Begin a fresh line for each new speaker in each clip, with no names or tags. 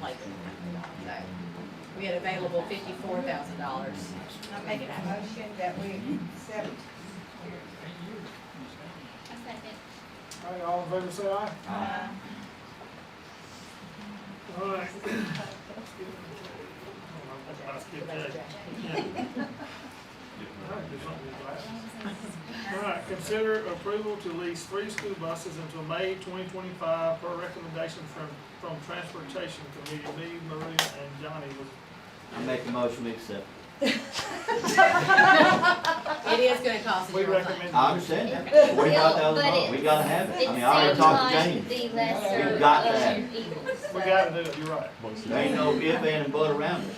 budget. So we had available fifty-four thousand dollars.
I'm making a motion that we accept.
All right, all in favor, say aye.
uh,
All right. All right, consider approval to lease three school buses until May twenty twenty-five per recommendation from, from Transportation Committee. Me, Maria, and Johnny was
I make a motion, we accept.
It is gonna cost us
We
more money.
recommend.
I understand that, forty-five thousand
But
dollars,
it-
we gotta have
It
it, I mean, I already
seems
talked to
like
James.
the lesser
We've
of
got that.
two evils.
We
so-
gotta do it, you're right.
There ain't no if, and, but around it,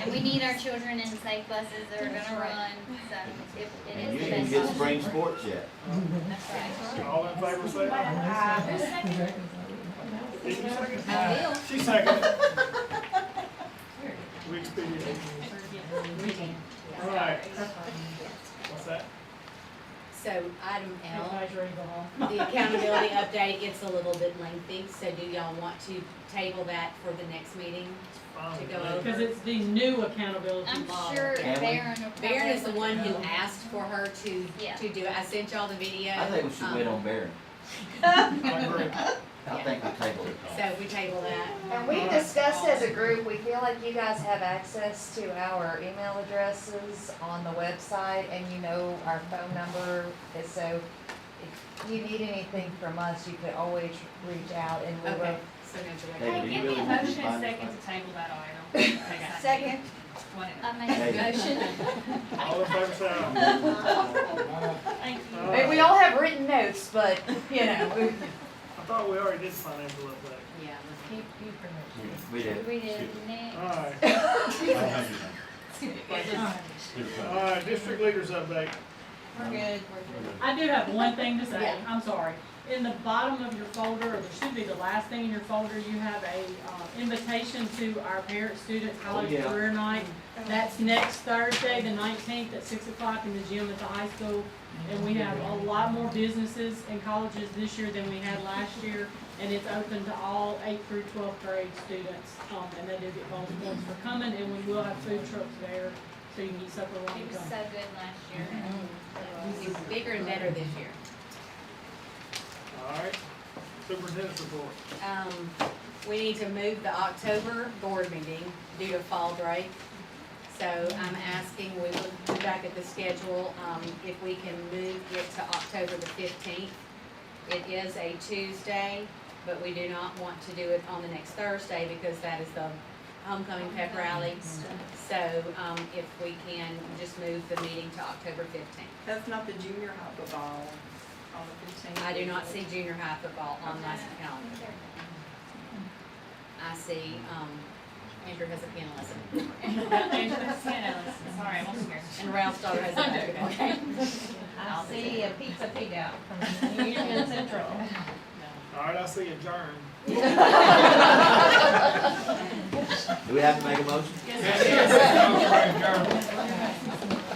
And we need our children in safe buses that are gonna run, so it, it
and
is
you
the
didn't
best.
get
option.
spring sports yet.
All in favor, say aye.
uh,
Did you second?
I will.
She seconded. We expedient. All right. What's that?
So item L, the accountability update, it's a little bit lengthy, so do y'all want to table that for the next meeting?
Fine.
To go over.
Because it's the new accountability
I'm
model.
sure
Can we?
Baron will probably.
Baron is the
look
one
it
who
up.
asked for her to,
Yeah.
to do it. I sent y'all the video.
I think we should wait on
Um,
Barron,
I agree.
I think we table it.
Um, So we table that.
And we discussed as a group, we feel like you guys have access to our email addresses on the website and you know our phone number. And so if you need anything from us, you could always reach out and we
Okay,
will.
so no
Hey,
direct.
do
Hey,
you
give me
really
a
need to
motion
buy
and
this
second
one?
to table that item. Okay.
Second,
Whatever.
I made
Hey.
a motion.
All in favor, say aye.
Thank you.
All
Hey,
right.
We all have written notes, but, you know,
I thought we already did financial update.
Yeah.
We did.
We did next.
All right, all right, district leaders update.
we're good,
I do have one thing to say,
Yeah.
I'm sorry. In the bottom of your folder, or there should be the last thing in your folder, you have a uh, invitation to our parent student college
yeah.
career night. That's next Thursday, the nineteenth, at six o'clock in the gym at the high school. And we have a lot more businesses and colleges this year than we had last year. And it's open to all eight through twelfth grade students, um, and they do get bonus points for coming, and we will have food trucks there, so you can eat supper while
He
you
was
come.
so good last year.
Mm-hmm. It's bigger and better this year.
All right, superintendent's report.
Um, we need to move the October board meeting due to fall break. So I'm asking, we look back at the schedule, um, if we can move it to October the fifteenth. It is a Tuesday, but we do not want to do it on the next Thursday because that is the homecoming pep rally. So, um, if we can just move the meeting to October fifteenth.
That's not the junior high football on the fifteenth.
I do not see junior high football on my calendar. I see, um, Andrew has a pianolism,
Angela Santos. Sorry, I'm almost scared.
and Ralph's daughter has a basketball.
I'll see
a pizza pig out from
Union
Central.
All right, I see adjourn.
Do we have to make a motion?
Yes, sir.
All